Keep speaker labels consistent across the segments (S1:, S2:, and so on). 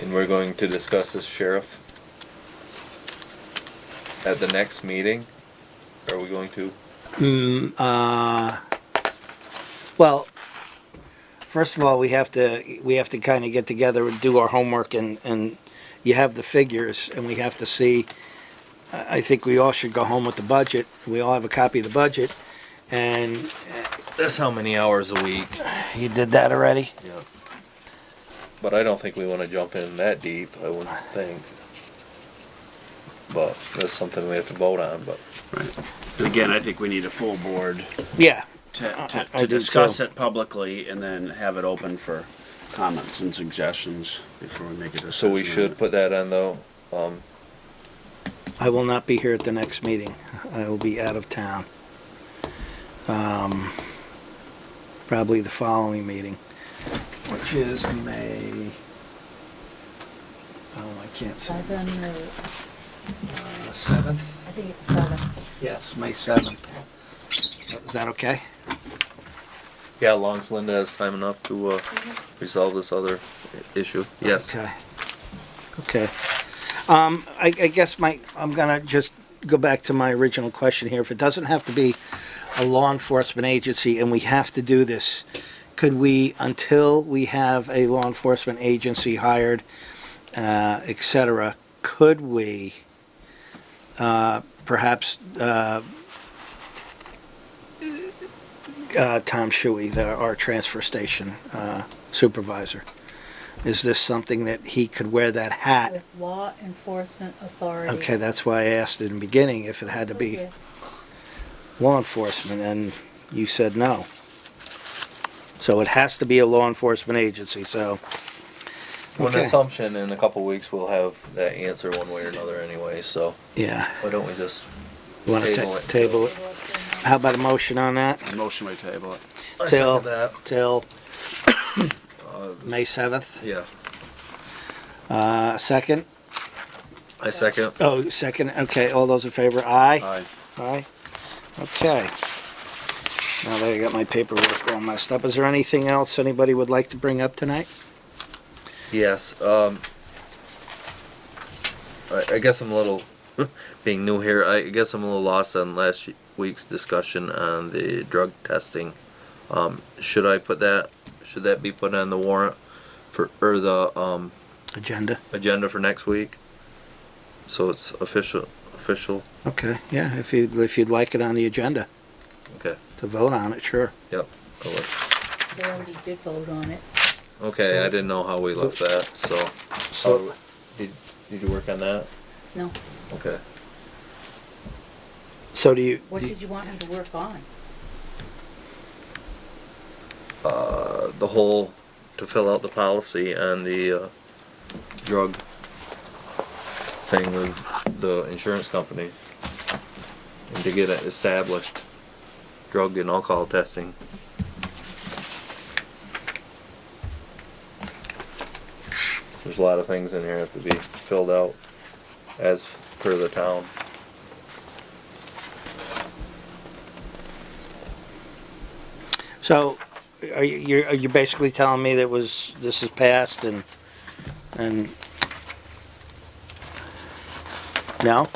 S1: And we're going to discuss this sheriff at the next meeting? Are we going to?
S2: Well, first of all, we have to, we have to kind of get together and do our homework and, and you have the figures and we have to see. I I think we all should go home with the budget. We all have a copy of the budget. And
S1: That's how many hours a week.
S2: you did that already?
S1: Yeah. But I don't think we wanna jump in that deep, I wouldn't think. But that's something we have to vote on, but
S3: Right. Again, I think we need a full board
S2: Yeah.
S3: to, to,
S2: I- I
S3: to
S2: do
S3: discuss
S2: too.
S3: it publicly and then have it open for comments and suggestions before we make a decision.
S1: So we should put that on though, Um,
S2: I will not be here at the next meeting. I will be out of town. Um, Probably the following meeting, which is May. Oh, I can't see.
S4: Seven or,
S2: Seventh?
S4: I think it's uh, seven.
S2: Yes, May seventh. Is that okay?
S1: yeah, long as Linda has time enough to, uh, resolve this other i- issue, yes.
S2: Okay. Okay. Um, I, I guess my, I'm gonna just go back to my original question here. If it doesn't have to be a law enforcement agency and we have to do this, could we, until we have a law enforcement agency hired, uh, et cetera, could we, uh, perhaps, uh, uh, Tom Shuey, the, our transfer station, uh, supervisor? Is this something that he could wear that hat?
S4: With law enforcement authority.
S2: Okay, that's why I asked in the beginning if it had to be
S4: Okay.
S2: law enforcement, and you said no. So it has to be a law enforcement agency, so,
S1: With an
S2: Okay.
S1: assumption in a couple weeks we'll have that answer one way or another anyway, so
S2: yeah.
S1: why don't we just?
S2: You want
S1: Table
S2: to
S1: it.
S2: table it? How about a motion on that?
S3: Motion we table it.
S1: I second
S2: Till,
S1: that.
S2: till
S1: Uh, this-
S2: May 7th?
S1: Yeah,
S2: Uh, second?
S1: I second.
S2: Oh, second, okay, all those in favor, aye?
S3: Aye.
S1: Uh.
S2: Aye. Okay. Now that I got my paperwork all messed up, is there anything else anybody would like to bring up tonight?
S1: Yes, um, I, I guess I'm a little, being new here, I guess I'm a little lost on last week's discussion on the drug testing. Um, should I put that, should that be put on the warrant for, or the, um,
S2: Agenda?
S1: agenda for next week? So it's official, official,
S2: Okay, yeah, if you'd, if you'd like it on the agenda
S1: okay,
S2: to vote on it, sure.
S1: yep. I will.
S4: They already did vote on it.
S1: Okay, I didn't know how we left that, so,
S2: So,
S1: did, did you work on that?
S4: No.
S1: Okay.
S2: so do you,
S4: What
S2: do-
S4: did you want me to work on?
S1: uh, the whole, to fill out the policy and the, uh, drug thing with the insurance company. And to get it established, drug and alcohol testing. There's a lot of things in here that have to be filled out as per the town.
S2: so are you, you're, are you basically telling me that was, this is passed and, and? No?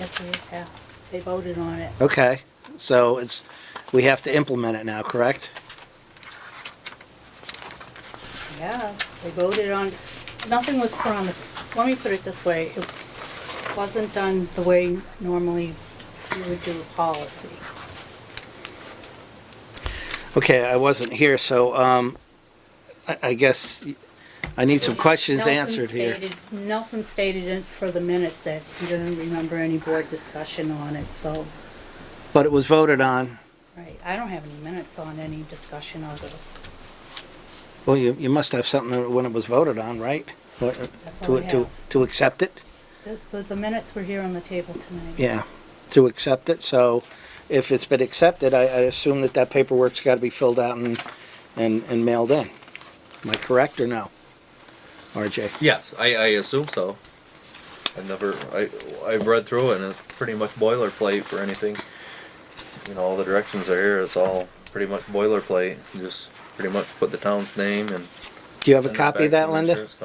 S4: Yes, it is passed. They voted on it.
S2: Okay, so it's, we have to implement it now, correct?
S4: Yes, they voted on, nothing was promised. Let me put it this way. It wasn't done the way normally you would do a policy.
S2: Okay, I wasn't here, so, um, I, I guess I need some questions
S4: Nelson
S2: answered here.
S4: stated- Nelson stated in- for the minutes that he didn't remember any board discussion on it, so,
S2: But it was voted on.
S4: right, I don't have any minutes on any discussion of this.
S2: Well, you, you must have something when it was voted on, right? What-
S4: That's all
S2: To,
S4: I
S2: to,
S4: have.
S2: to accept it?
S4: The- The, the minutes were here on the table tonight.
S2: Yeah, to accept it, so if it's been accepted, I, I assume that that paperwork's gotta be filled out and, and, and mailed in. Am I correct or no? RJ?
S1: Yes, I, I assume so. I've never, I, I've read through it and it's pretty much boilerplate for anything. You know, all the directions are here, it's all pretty much boilerplate, You just pretty much put the town's name and.
S2: Do you have a
S1: send it
S2: copy of
S1: back to
S2: that,
S1: the
S2: Linda?
S1: insurance